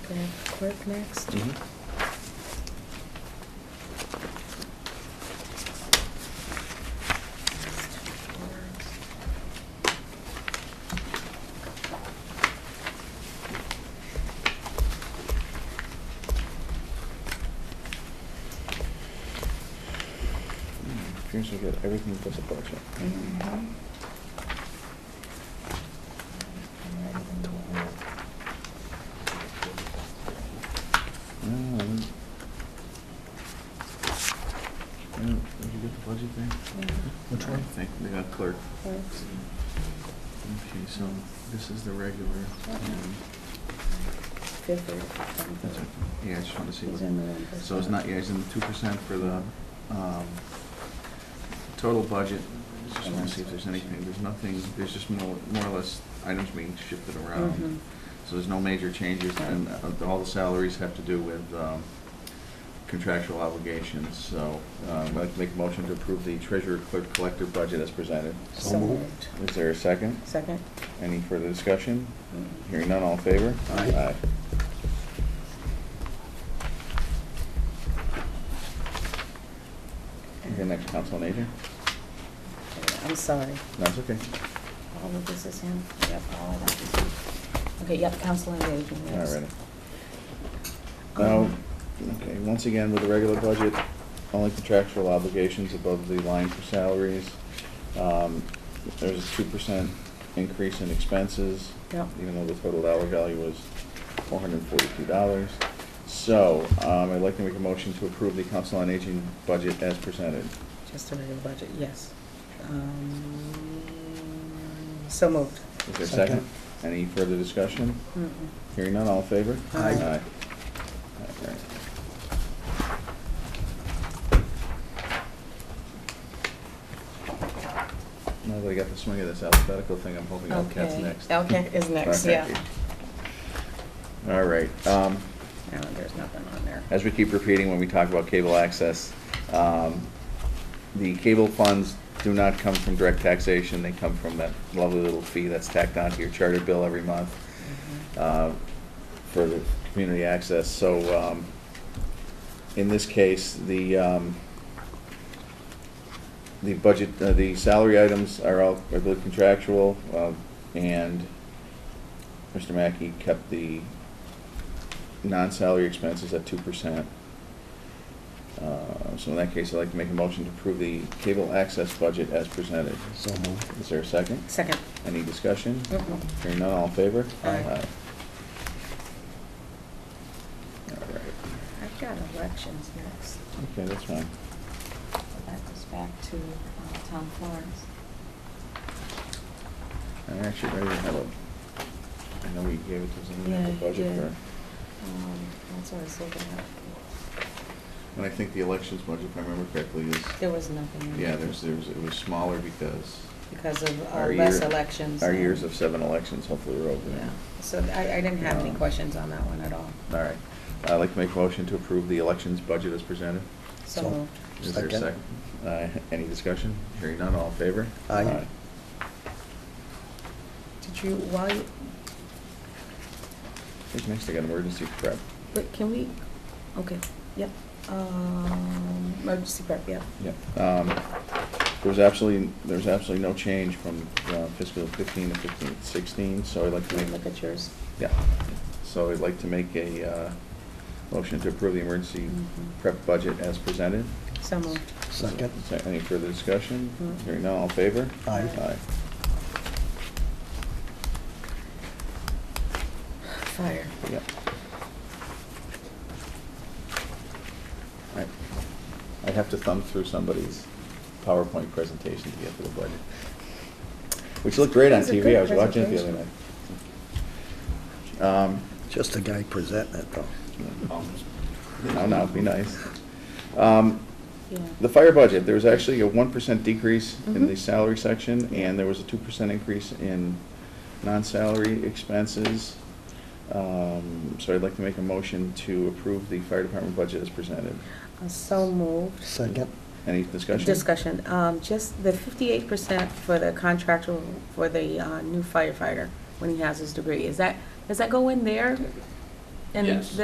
grab clerk next. Mm-hmm. Appears we got everything but the budget. Mhm. No, Mm, I don't- I don't- Mm, Did you get the budget thing? Which one? I think we got clerk. Clerks. Okay, so this is the regular. um, Fifth or that's it. something. Yeah, I just wanted to see He's what. in the one percent. So it's not, yeah, it's in the two percent for the, um, total budget. Just wanna see if there's anything, there's nothing, there's just more, more or less items being shifted Mhm. around. So there's no major changes, and uh, all the salaries have to do with, um, contractual obligations, so, um, I'd like to make a motion to approve the treasurer clerk collector budget as presented. So So moved. moved. Is there a second? Second? Any further discussion? Mm. Hearing none, all in favor? Aye. The next council on aging? I'm sorry. That's okay. All of this is him? Yep, all of that is him. Okay, yep, council engagement, All yes. Um, righty. Now, okay, once again, with the regular budget, only contractual obligations above the line for salaries. Um, There's a two percent increase in expenses. Yep. Even though the total dollar value was four hundred and forty-two dollars. So, um, I'd like to make a motion to approve the council on aging budget as presented. Just a regular budget, yes. Um, So moved. Is there a Second. second? Any further discussion? Mm-mm. Hearing none, all in favor? Aye. All right. Now that I got the swing of this alphabetical thing, I'm hoping Elcat's Okay. next. Elcat is next, Okay. yeah. All right, um, No, there's nothing on there. as we keep repeating when we talk about cable access, um, the cable funds do not come from direct taxation, they come from that lovely little fee that's tacked onto your charter bill every month Mhm. uh, for the community access. So um, in this case, the, um, the budget, uh, the salary items are all, I believe, contractual, uh, and Mr. Mackey kept the non-salary expenses at two percent. Uh, So in that case, I'd like to make a motion to approve the cable access budget as presented. So moved. Is there a second? Second. Any discussion? Mm-mm. Hearing none, all in favor? Aye. All right, I've got elections next. okay, that's fine. That goes back to uh, Tom Florence. I'm actually ready to have a, I know we gave it to someone Yeah, in the you budget did. for, Um, That's what I was looking at. and I think the elections budget, if I remember correctly, There is, was nothing. in yeah, there. there's, there was, it was smaller because Because of uh, our year. less elections. Our and- years of seven elections hopefully are over. Yeah, so I, I didn't have any Um, questions on that one at all. All right, I'd like to make a motion to approve the elections budget as presented. So So- moved. Is there a Second. second? Uh, Any discussion? Hearing none, all in favor? Aye. Did you, while you, Who's next? I got emergency prep. wait, can we, okay, yep, um, emergency prep, yep. Yep. Um, There was absolutely, there was absolutely no change from uh, fiscal fifteen to fifteen sixteen, so I'd like to Can we make, look at yours? yeah. So I'd like to make a uh, motion to approve the emergency Mhm. prep budget as presented. So moved. Second. Is there any further discussion? Mm. Hearing none, all in favor? Aye. Fire. Aye, yep. Alright. I'd have to thumb through somebody's PowerPoint presentation to get to the budget, which looked great on It's a TV. good I was watching it the other presentation. night. Um, Just the guy presenting it though. No, no, be nice. Um, Yeah. The fire budget, there was actually a one percent decrease in the Mhm. salary section, and there was a two percent increase in non-salary expenses. Um, So I'd like to make a motion to approve the fire department budget as presented. Uh, So moved. Second. Any discussion? Discussion, um, just the fifty-eight percent for the contractual, for the, uh, new firefighter, when he has his degree, is that, does that go in there? And Yes.